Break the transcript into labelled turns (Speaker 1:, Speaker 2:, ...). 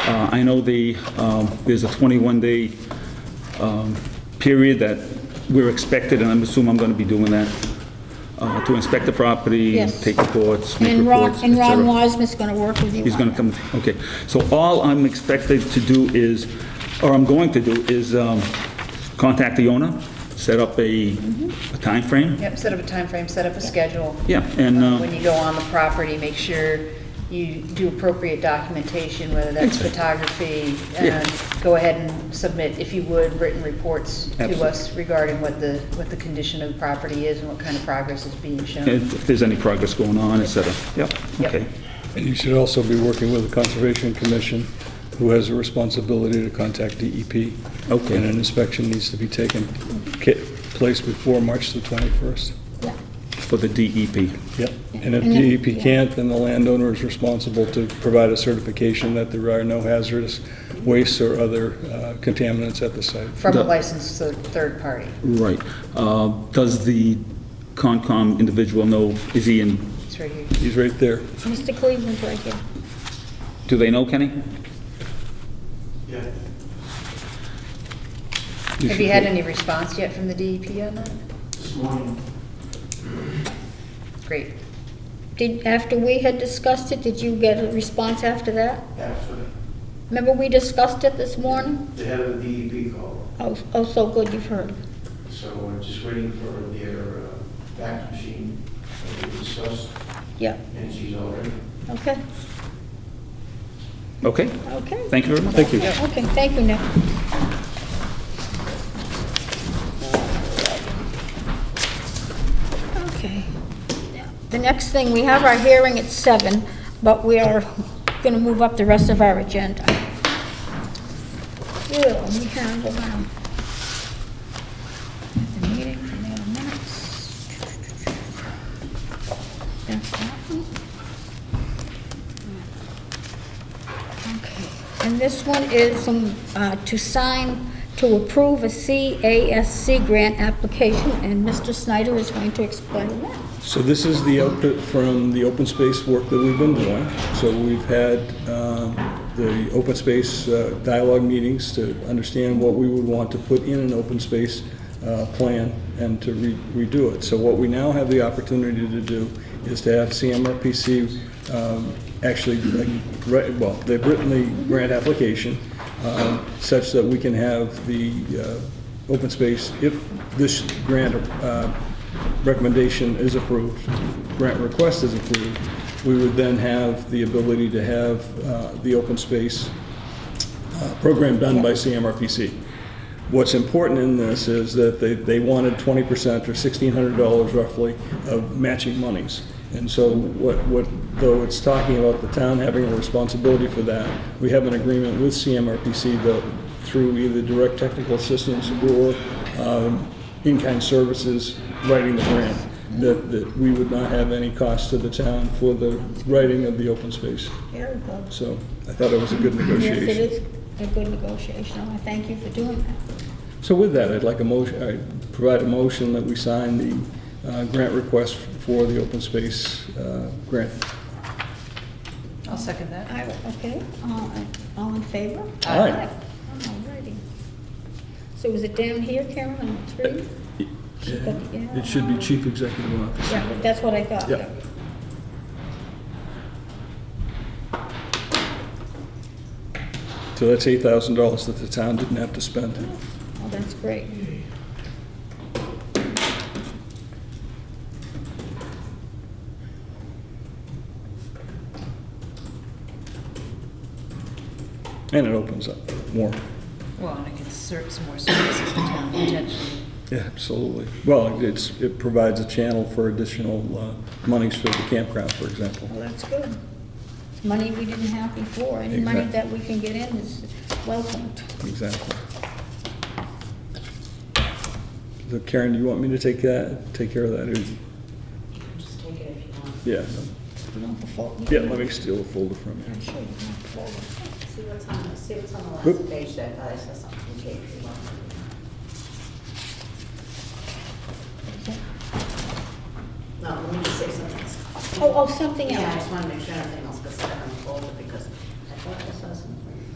Speaker 1: Uh, I know the, um, there's a 21-day period that we're expected, and I'm assuming I'm going to be doing that, uh, to inspect the property,
Speaker 2: Yes.
Speaker 1: take reports, make
Speaker 2: And Ron,
Speaker 1: reports, et
Speaker 2: and Ron
Speaker 1: cetera.
Speaker 2: Wasmer's going to work with you
Speaker 1: He's going
Speaker 2: on
Speaker 1: to come, okay. So all I'm expected to do is, or I'm going to do, is um, contact the owner, set up a a timeframe.
Speaker 3: Yep, set up a time frame. set up a schedule.
Speaker 1: Yeah, and,
Speaker 3: Uh,
Speaker 1: uh,
Speaker 3: When you go on the property, make sure you do appropriate documentation, whether that's photography.
Speaker 1: Yeah.
Speaker 3: and Go ahead and submit, if you would, written reports to
Speaker 1: Absolutely.
Speaker 3: us regarding what the, what the condition of the property is and what kind of progress is being shown.
Speaker 2: Mm-hmm.
Speaker 1: If there's any progress going on, et cetera. Yep,
Speaker 3: Yep.
Speaker 1: okay.
Speaker 4: And you should also be working with the Conservation Commission, who has a responsibility to contact DEP.
Speaker 1: Okay.
Speaker 4: And an inspection needs to be taken, ca- place before March the 21st.
Speaker 2: Yeah.
Speaker 1: For the E DEP.
Speaker 4: Yep. And if
Speaker 2: And if-
Speaker 4: DEP can't, then the landowner is responsible to provide a certification that there are no hazardous wastes or other uh, contaminants at the site.
Speaker 3: From a
Speaker 1: the-
Speaker 3: licensed thir- third party.
Speaker 1: Right. Uh, Does the Concom individual know, is he in,
Speaker 3: It's right here.
Speaker 4: He's right there.
Speaker 2: Mr. Cleveland's right here.
Speaker 1: do they know Kenny?
Speaker 5: Yeah,
Speaker 3: Have you had any response yet from the DEP on that?
Speaker 5: this morning,
Speaker 3: Great.
Speaker 2: Did, after we had discussed it, did you get a response after that?
Speaker 5: after
Speaker 2: Remember we discussed it this morning?
Speaker 5: the head of the DEP called,
Speaker 2: Oh, oh, so good you've heard.
Speaker 5: so we're just waiting for their uh, fax machine that we discussed,
Speaker 2: Yeah,
Speaker 5: and she's already.
Speaker 2: okay,
Speaker 1: Okay,
Speaker 2: okay.
Speaker 1: thank you very much. Thank you.
Speaker 2: Okay, thank you, Nick. Okay. The next thing, we have our hearing at seven, but we are gonna move up the rest of our agenda. Ew, we have, um, the meeting from the other minutes. That's that one. Okay, And this one is um, uh, to sign, to approve a CASC grant application, and Mr. Snyder is going to explain that.
Speaker 4: So this is the output from the open space work that we've been doing. So we've had um, the open space uh, dialogue meetings to understand what we would want to put in an open space uh, plan and to re- redo it. So what we now have the opportunity to do is to have CMRPC um, actually, uh, write- well, they've written the grant application um, such that we can have the uh, open space, if this grant uh, recommendation is approved, grant request is approved, we would then have the ability to have uh, the open space uh, program done by CMRPC. What's important in this is that they, they wanted 20% or $1,600 roughly of matching monies. And so what, what, though it's talking about the town having a responsibility for that, we have an agreement with CMRPC that through either direct technical assistance or um, in-kind services, writing the grant, that, that we would not have any cost to the town for the writing of the open space.
Speaker 2: Very good.
Speaker 4: So I thought it was a good
Speaker 2: Yes,
Speaker 4: negotiation.
Speaker 2: it is a good negotiation, and I thank you for doing that.
Speaker 4: So with that, I'd like a motion, I'd provide a motion that we sign the uh, grant request for the open space uh, grant.
Speaker 3: I'll second that.
Speaker 2: I- Okay, all all in favor?
Speaker 4: Aye.
Speaker 2: All righty. So is it down here, Karen, on three? She got the- yeah.
Speaker 4: It should be chief executive officer.
Speaker 2: Yeah, that's what I thought.
Speaker 4: Yeah. So that's $8,000 that the town didn't have to spend.
Speaker 2: Oh, that's great.
Speaker 4: And it opens up more.
Speaker 3: Well, and I can serve some more services to town potentially.
Speaker 4: Yeah, absolutely. Well, it's, it provides a channel for additional uh, monies for the campground, for example.
Speaker 2: Well, that's good. It's money we didn't have before, any money
Speaker 4: Exactly.
Speaker 2: that we can get in is welcomed.
Speaker 4: Exactly. So Karen, do you want me to take that, take care of that? Just take it if you want. Yeah.
Speaker 2: You know, before-
Speaker 4: Yeah, let me steal a folder from you.
Speaker 2: I'm sure you can afford it.
Speaker 6: See what's on, see what's on the
Speaker 4: Oop.
Speaker 6: last page that I saw something, Kate, you want. No, let me just say something.
Speaker 2: Oh, oh, something
Speaker 6: Yeah, I
Speaker 2: else. Oh,
Speaker 6: just want to make sure everything else gets set on the folder